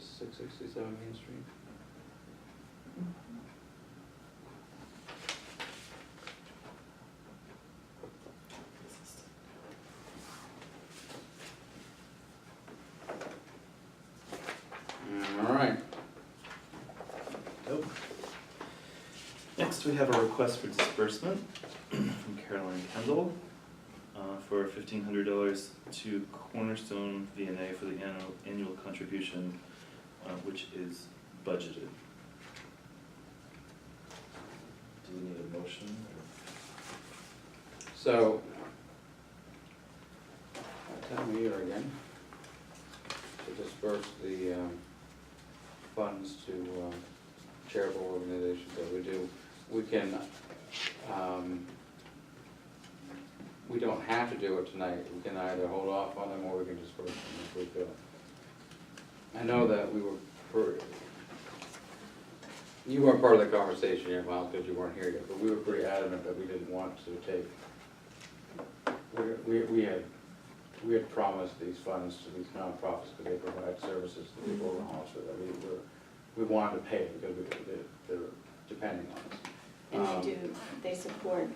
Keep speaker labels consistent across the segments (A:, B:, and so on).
A: sixty-seven Main Street.
B: All right,
C: Nope. Next, we have a request for disbursement from Caroline Kendall uh, for fifteen hundred dollars to Cornerstone VNA for the annual, annual contribution, uh, which is budgeted. Do we need a motion or?
B: so. Time of year again. To disperse the, um, funds to, um, charitable organizations that we do. We can, um, we don't have to do it tonight. We can either hold off on them or we can disperse them if we feel. I know that we were, per- you weren't part of the conversation here, Miles, because you weren't here yet, but we were pretty adamant that we didn't want to take. We, we, we had, we had promised these funds to these nonprofits because they provide services to people in Hollister that we were, we wanted to pay because we, they, they're depending on us.
D: And
B: Um,
D: they do, they support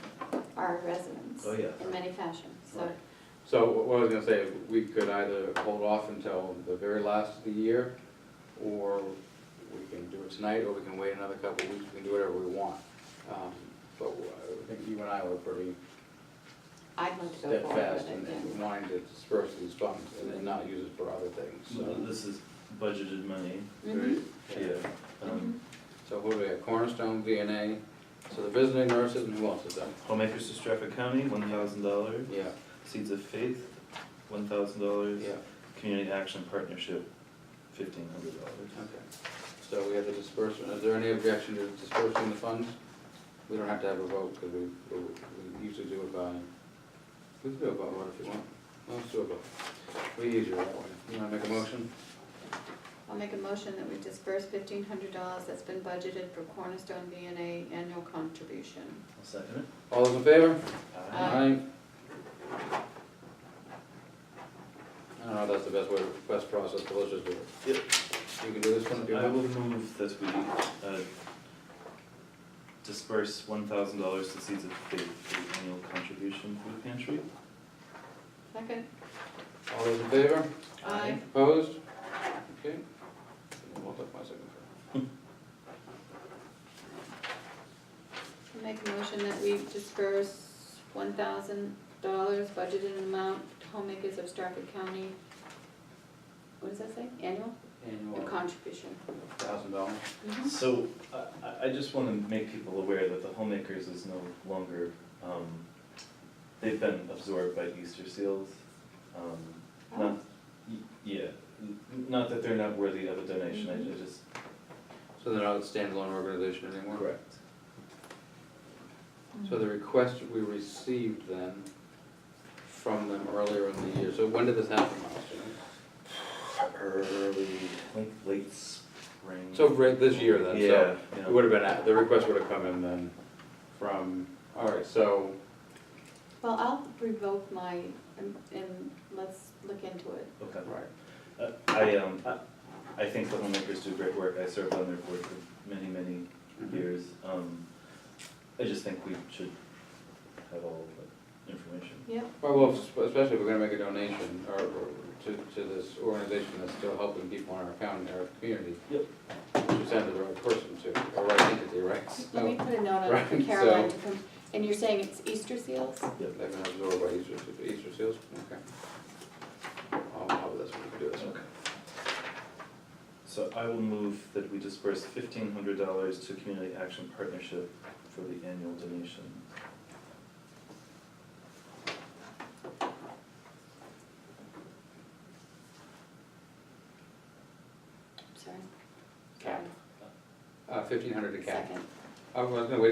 D: our residents
C: Oh, yeah.
D: in many fashions, so.
B: Right. So what I was gonna say, we could either hold off until the very last of the year, or we can do it tonight, or we can wait another couple of weeks, we can do whatever we want. Um, But I think you and I were pretty
D: I'd like to go forward
B: steadfast in
D: with it,
B: in
D: yeah.
B: wanting to disperse these funds and then not use it for other things,
C: So
B: so.
C: this is budgeted money.
D: Mhm,
C: Yeah. Um,
B: So who do we have, Cornerstone, VNA, so the visiting nurses, and who else is that?
C: Homemakers to Stratford County, one thousand dollars.
B: Yeah,
C: Seeds of Faith, one thousand dollars.
B: yeah,
C: Community Action Partnership, fifteen hundred dollars.
B: okay. So we have the disbursement, is there any objection to dispersing the funds? We don't have to have a vote, because we, we usually do it by, we can do it by vote if you want. Let's do a vote. We usually that way. You wanna make a motion?
D: I'll make a motion that we disperse fifteen hundred dollars that's been budgeted for Cornerstone V and A annual contribution.
C: I'll second it.
B: All those in favor? Uh,
D: Aye.
B: I don't know if that's the best way, best process, but let's just do it.
C: Yep.
B: You can do this one if you
C: Uh, I will
B: want.
C: move that we uh, disperse one thousand dollars to Seeds of Faith for the annual contribution food pantry.
D: Second?
B: All those in favor?
D: Aye.
B: Opposed? Okay. Hold up my second.
D: I'll make a motion that we disperse one thousand dollars budgeted amount to homemakers of Stratford County. What does that say? Annual? A
B: Annual,
D: contribution.
B: thousand dollars.
D: Mhm.
C: So I- I, I just want to make people aware that the homemakers is no longer, um, they've been absorbed by Easter Seals. Um, Not, y- yeah, n- not that they're not worthy of a donation, I I just.
B: So they're not a standalone organization anymore?
C: Correct.
B: So the request we received then from them earlier in the year, so when did this happen last year?
C: Early, like late spring.
B: So uh, right this year then, so
C: Yeah, yeah.
B: it would have been, at- the request would have come in then from, all right, so,
D: Well, I'll revoke my, and, and let's look into it.
C: Okay.
B: right.
C: Uh, I, um, I- I think the homemakers do great work. I served on their board for many, many years. Um, I just think we should have all of the information.
D: Yep.
B: Well, well, es- especially if we're gonna make a donation or, or to, to this organization that's still helping people in our county, our community.
C: Yep.
B: To send to the right person to, or right entity, E, right?
D: Let me
B: So,
D: put a note on it for
B: Right,
D: Caroline
B: so-
D: to come, and you're saying it's Easter seals?
B: They've been absorbed by Easter, Easter seals, okay. Oh, oh, that's what we can do this.
C: Okay. So I will move that we disperse fifteen hundred dollars to Community Action Partnership for the annual donation.
D: Sorry.
B: Cap. Uh, fifteen hundred a cap.
D: Second.
B: Uh, I was gonna Oh, wait